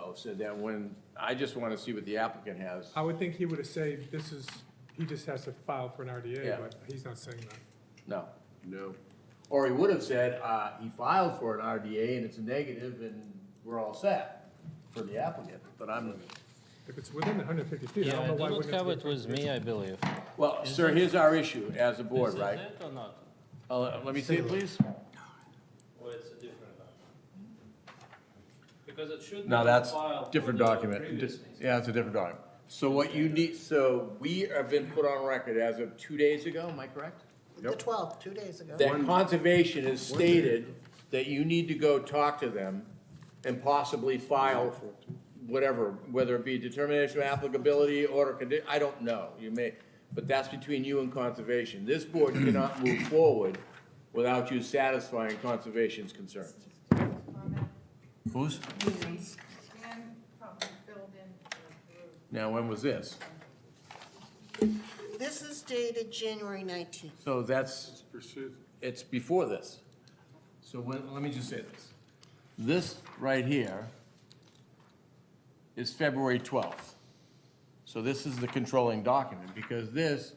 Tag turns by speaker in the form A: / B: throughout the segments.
A: though, Oh, so that when, I just want to see what the applicant has.
B: I would think he would have said, this is, he just has to file for an
A: Yeah.
B: RDA, but he's not saying that.
A: No.
C: No.
A: Or he would have said, uh, he filed for an RDA and it's a negative and we're all set for the applicant, but I'm,
B: If it's within the hundred fifty feet, I
D: Yeah,
B: don't know
D: it
B: why it
D: doesn't
B: wouldn't have
D: cover
B: to
D: it
B: be.
D: with me, I believe.
A: well, sir, here's our issue as a board,
D: Is it
A: right?
D: it or not?
A: Uh, Let me see it, please.
D: Or it's a different one? Because it should.
A: No,
D: be
A: that's
D: filed for
A: different
D: the
A: document.
D: previous
A: Di-
D: meeting.
A: Yeah, it's a different document. So what you need, so we have been put on record as of two days ago, am I correct?
E: The twelfth, two days ago.
A: That conservation has stated that you need to go talk to them and possibly file for whatever, whether it be determination of applicability, order condi, I don't know, you may, but that's between you and conservation. This board cannot move forward without you satisfying conservation's concerns. Who's?
F: And probably filled in for Drew.
A: Now, when was this?
E: This is dated January nineteenth.
A: So that's, it's before this. So when, let me just say this. This right here is February 12th. So this is the controlling document, because this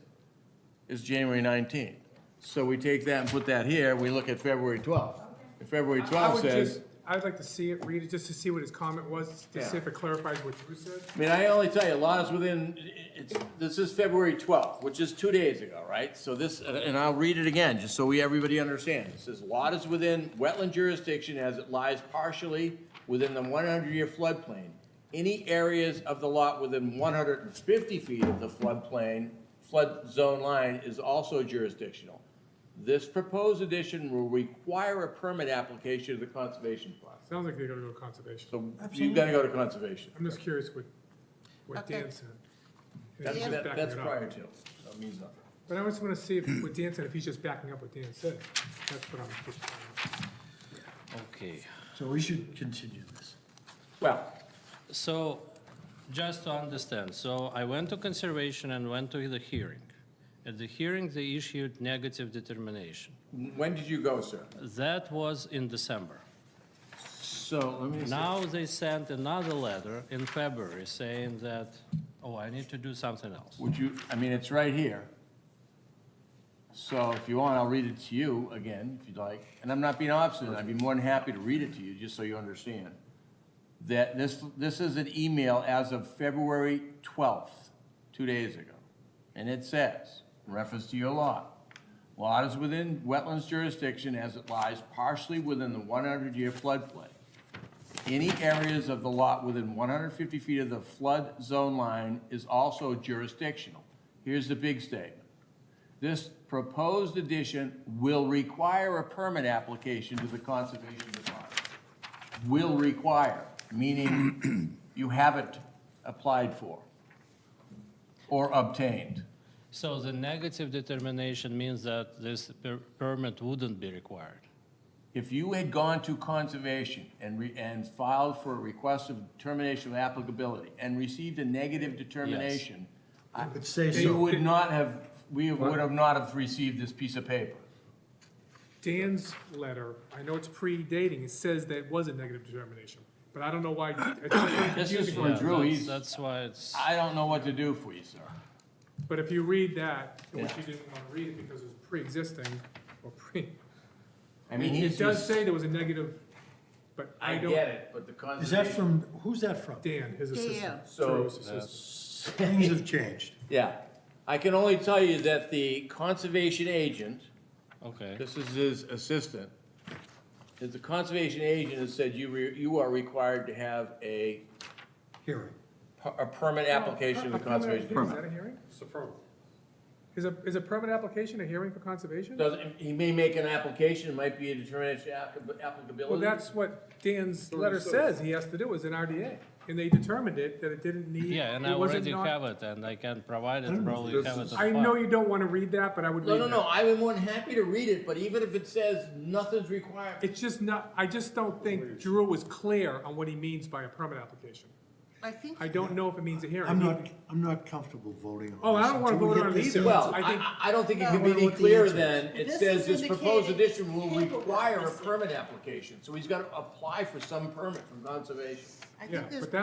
A: is January 19th. So we take that and put that here, we look at February 12th. And February
B: I would
A: 12th
B: just,
A: says,
B: I'd like to see it, read it, just to see what his comment was, to see if it clarifies what Drew said.
A: I mean, I only tell you, a lot is within, it's, this is February 12th, which is two days ago, right? So this, and I'll read it again, just so we, everybody understands. It says, "Lot is within wetland jurisdiction as it lies partially within the 100-year floodplain. Any areas of the lot within 150 feet of the floodplain, flood zone line is also jurisdictional. This proposed addition will require a permit application to the conservation process."
B: Sounds like they're gonna go conservation.
A: So you've got to go to conservation.
B: I'm just curious what, what
E: Okay.
B: Dan said. And if
A: That's,
B: he's just
A: that-
B: backing
A: that's
B: it up.
A: prior to, that means nothing.
B: But I just wanna see if, what Dan said, if he's just backing up what Dan said. That's what I'm just
D: Okay,
G: So we should continue this.
A: Well,
D: so just to understand, so I went to conservation and went to the hearing. At the hearing, they issued negative determination.
A: when did you go, sir?
D: That was in December.
A: So, let me
D: Now they sent another letter in February saying that, oh, I need to do something else.
A: Would you, I mean, it's right here. So if you want, I'll read it to you again, if you'd like. And I'm not being obstinate, I'd be more than happy to read it to you, just so you understand. That this, this is an email as of February 12th, two days ago. And it says, in reference to your lot, lot is within wetlands jurisdiction as it lies partially within the 100-year floodplain. Any areas of the lot within 150 feet of the flood zone line is also jurisdictional. Here's the big statement. This proposed addition will require a permit application to the Conservation Department. Will require, meaning you haven't applied for or obtained.
D: So the negative determination means that this per- permit wouldn't be required.
A: If you had gone to conservation and re, and filed for a request of determination of applicability and received a negative determination,
G: I would say
A: you
G: so.
A: would not have, we would have not have received this piece of paper.
B: Dan's letter, I know it's predating, it says that it was a negative determination, but I don't know why. it's just
A: This is
B: confusing.
A: for Drew,
D: that's-
A: he's,
D: That's why it's,
A: I don't know what to do for you, sir.
B: But if you read that, which
A: Yeah.
B: you didn't want to read it because it was pre-existing, or pre,
A: I mean, he's
B: it does
A: just.
B: say there was a negative, but I don't,
A: it, but the
B: Uh,
G: Is that from, who's that from?
B: Dan, his assistant.
E: Dan.
A: So- uh,
B: Drew's assistant.
G: Things have changed.
A: Yeah, I can only tell you that the conservation agent,
D: okay.
A: this is his assistant, that the conservation agent has said you, re- you are required to have a
G: Hearing.
A: per- a permit application to the
B: Oh, A permit
A: conservation.
B: application, Is that a hearing? It's a permit. Is a, is a permit application a hearing for conservation?
A: Does, he may make an application, it might be a determination of applica-
B: Well,
A: applicability.
B: that's what Dan's letter says he has to do, is an RDA, and they determined it, that it didn't need.
D: Yeah, and I
B: it wasn't
D: already
B: not-
D: have it, and I can provide it, probably have it. on
B: I know
D: file.
B: you don't want to read that, but I would
A: No,
B: read
A: no,
B: that.
A: no, I am more than happy to read it, but even if it says nothing's required,
B: It's just not, I just don't think Drew was clear on what he means by a permit application.
E: I think
B: I don't know if it means a hearing.
G: I'm not, I'm not comfortable voting on this.
B: Oh, I don't wanna
G: until we
B: vote
G: get
B: on it
G: this
B: either.
G: answer.
A: well,
B: I
A: I,
B: think-
A: I- I don't think it
E: No,
A: can
G: I
A: be
G: don't
A: any
G: want the
A: clearer
G: answer.
A: than, it
E: This
A: says
E: is
A: this proposed
E: indicating
A: addition will
E: paperwork
A: require a
E: is-
A: permit application, so he's gotta apply for some permit from conservation.
E: I
B: Yeah,
E: think there's
B: but that-